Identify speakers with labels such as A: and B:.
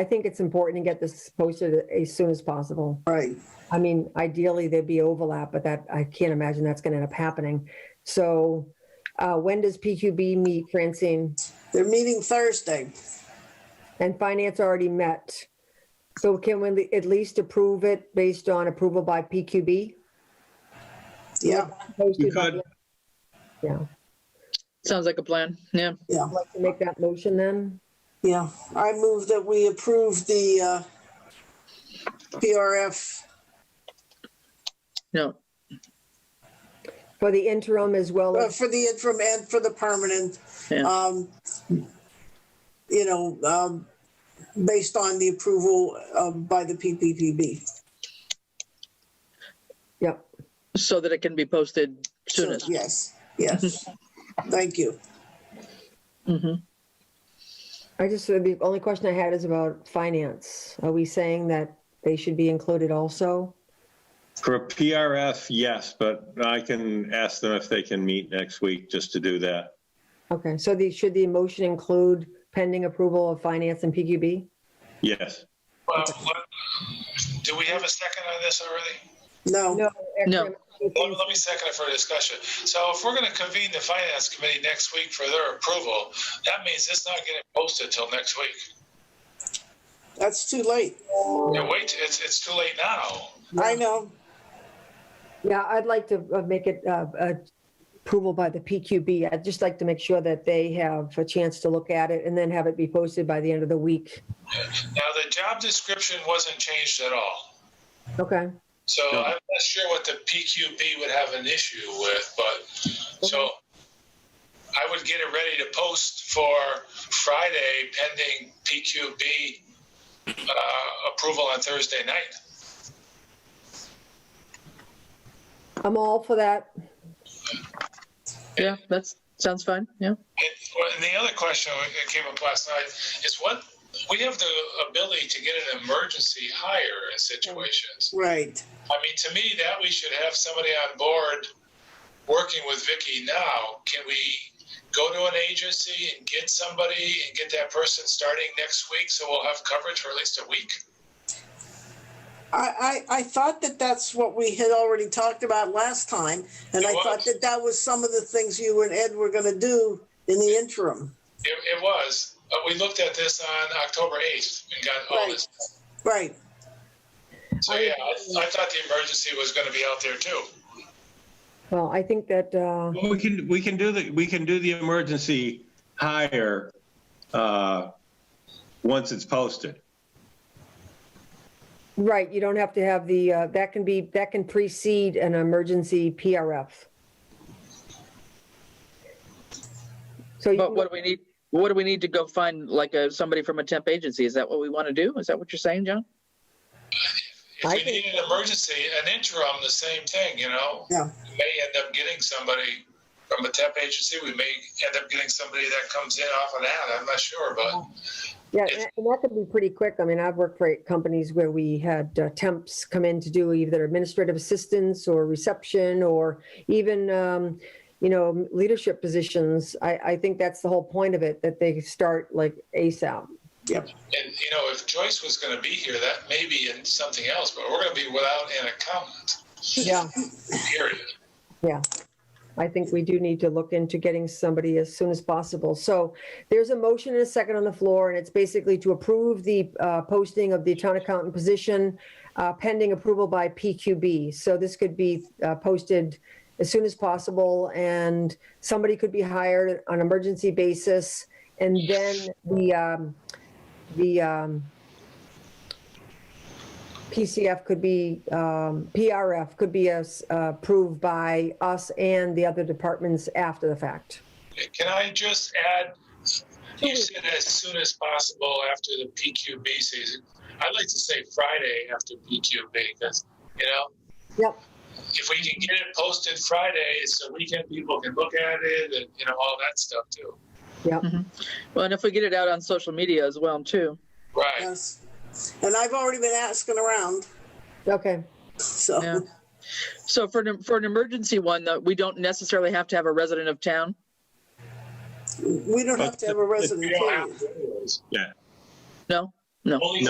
A: I think it's important to get this posted as soon as possible.
B: Right.
A: I mean, ideally, there'd be overlap, but that, I can't imagine that's going to end up happening. So uh, when does PQB meet, Francine?
B: They're meeting Thursday.
A: And finance already met. So can we at least approve it based on approval by PQB?
B: Yeah,
C: You could.
A: Yeah,
D: Sounds like a plan. Yeah.
B: yeah,
A: I'd like to make that motion then.
B: yeah. I move that we approve the uh, PRF.
D: No.
A: For the interim as well
B: Uh,
A: as,
B: for the interim and for the permanent.
D: Yeah.
B: Um, you know, um, based on the approval uh, by the PPPB.
A: yep.
D: So that it can be posted soonest.
B: Yes, yes. Thank you.
D: Mhm.
A: I just, uh, the only question I had is about finance. Are we saying that they should be included also?
C: For a PRF, yes, but I can ask them if they can meet next week just to do that.
A: Okay, so the, should the motion include pending approval of finance and PQB?
C: Yes.
E: Well, let- Do we have a second on this already?
B: No,
D: No.
E: Let, let me second it for discussion. So if we're gonna convene the finance committee next week for their approval, that means it's not getting posted till next week.
B: that's too late.
E: Yeah, wait, it's, it's too late now.
B: I know.
A: Yeah, I'd like to uh, make it uh, uh, approval by the PQB. I'd just like to make sure that they have a chance to look at it and then have it be posted by the end of the week.
E: Now, the job description wasn't changed at all.
A: Okay,
E: So
C: No.
E: I'm not sure what the PQB would have an issue with, but, so I would get it ready to post for Friday pending PQB, uh, approval on Thursday night.
A: I'm all for that.
D: Yeah. That's sounds fine. Yeah.
E: And well, and the other question that came up last night is what, we have the ability to get an emergency hire in situations.
B: Right.
E: I mean, to me, that we should have somebody on board working with Vicky now. Can we go to an agency and get somebody and get that person starting next week so we'll have coverage for at least a week?
B: I, I, I thought that that's what we had already talked about last time, and I
E: It was.
B: thought that that was some of the things you and Ed were gonna do in the interim.
E: It, it was, uh, we looked at this on October 8th and got all this.
B: Right,
E: So, yeah, I, I thought the emergency was going to be out there too.
A: Well, I think that, uh,
C: We can, we can do the, we can do the emergency hire, uh, once it's posted.
A: right, you don't have to have the, uh, that can be, that can precede an emergency PRF. So you
D: But
A: can
D: what do we need? What do we need to go find like a, somebody from a temp agency? Is that what we want to do? Is that what you're saying, John?
E: If
A: I
E: we
A: think-
E: need an emergency, an interim, the same thing, you know?
B: Yeah.
E: We may end up getting somebody from a temp agency, we may end up getting somebody that comes in off of that, I'm not sure, but
A: Yeah,
E: It's-
A: and and that could be pretty quick. I mean, I've worked for companies where we had uh, temps come in to do either administrative assistance or reception or even, um, you know, leadership positions. I, I think that's the whole point of it, that they start like ASAP.
E: and, you know, if Joyce was gonna be here, that may be in something else, but we're gonna be without an accountant,
A: Yeah.
E: period.
A: I think we do need to look into getting somebody as soon as possible. So there's a motion and a second on the floor, and it's basically to approve the uh, posting of the town accountant position uh, pending approval by PQB. So this could be uh, posted as soon as possible, and somebody could be hired on an emergency basis. And then the, um, the um, PCF could be, um, PRF could be as- uh, approved by us and the other departments after the fact.
E: Can I just add, you said as soon as possible after the PQB season, I'd like to say Friday after PQB, because, you know,
A: Yep,
E: if we can get it posted Friday, so weekend people can look at it and, you know, all that stuff too.
D: Well, and if we get it out on social media as well, too.
E: Right.
B: yes. And I've already been asking around,
A: okay.
D: Yeah.
B: so,
D: So for an, for an emergency one, though, we don't necessarily have to have a resident of town.
B: we don't have to have a resident,
E: You don't
B: period.
E: have to do those.
C: Yeah.
D: No. No.
E: Only